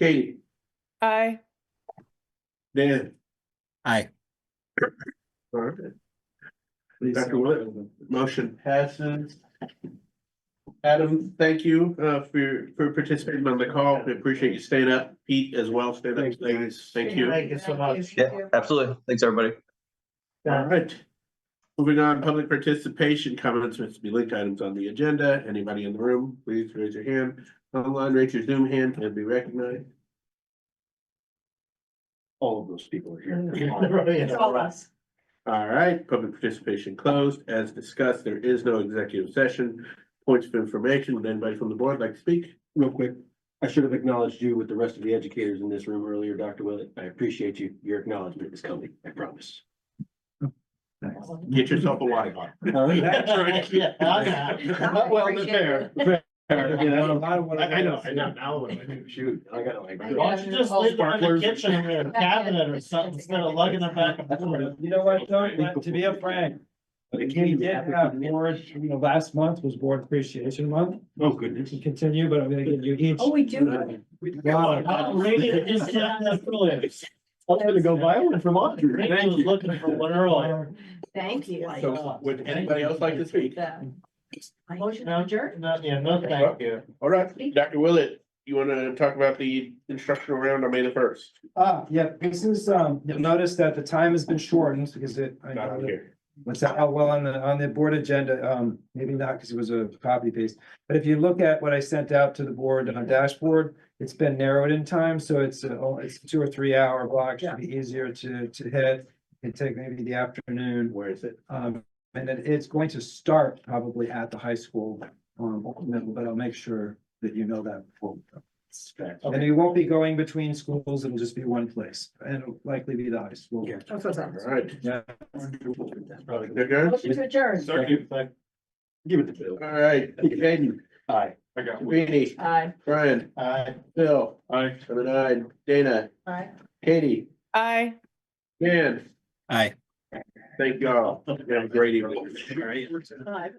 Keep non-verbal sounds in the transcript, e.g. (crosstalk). Katie, Aye. Dan. Aye. Alright. Dr. Willett, motion passes. Adam, thank you uh for for participating on the call. We appreciate you staying up. Pete as well, staying up. Thank you. Thank you so much. Yeah, absolutely. Thanks, everybody. All right. Moving on, public participation comments with the link items on the agenda. Anybody in the room, please raise your hand. Online, raise your Zoom hand and be recognized. (laughs) All of those people are Mm. It's all us. All right, public participation closed. As discussed, there is no executive session. Points of information, would anybody from the board like to speak? Real quick, I should have acknowledged you with the rest of the educators in this room earlier, Dr. Willett. I appreciate you. Your acknowledgement is coming, I promise. Get yourself a water bottle. (laughs) Yeah, Not well, the fair. (laughs) lot of what I I know, I do. know, now what do I do? Shoot, I gotta like. I Why know. don't you just leave them in the kitchen or in a cabinet or something instead of lugging them back and forth? You You know what, though? But to be a frank, we did have board, you know, last month was board appreciation month. Oh, We goodness. can continue, but I'm gonna give you each. Oh, we do. (laughs) (laughs) Wow, I'm ready to just sit down and fill it. I'm gonna go buy one from Audrey. I was looking for one earlier. Thank you. uh, So would anybody else like to speak? Motion adjourned. Not, yeah, no, thank you. All right, Dr. Willett, you wanna talk about the instructional round on May the first? Ah, yeah, this is, um, you'll notice that the time has been shortened because it, I know that What's that? Oh, well, on the, on the board agenda, um, maybe not because it was a copy paste. But if you look at what I sent out to the board on dashboard, it's been narrowed in time, so it's, a- oh, it's a two or three hour block, should be easier to, to hit. It'd take maybe the afternoon. Where is it? Um, and then it's going to start probably at the high school, um, ultimately, but I'll make sure that you know that. before. And it won't be going between schools, it'll just be one place, and it'll likely be the high school. Yeah. All right. Yeah. They're good? Motion to adjourn. Sorry. Give it to Bill. All right, Hayden, Aye. I got Vinnie, Aye. Brian, Uh, Aye. Bill, Aye. I'm an aye, Dana, Aye. Katie, Aye. Dan, Aye. thank you all. Have a great evening. Aye.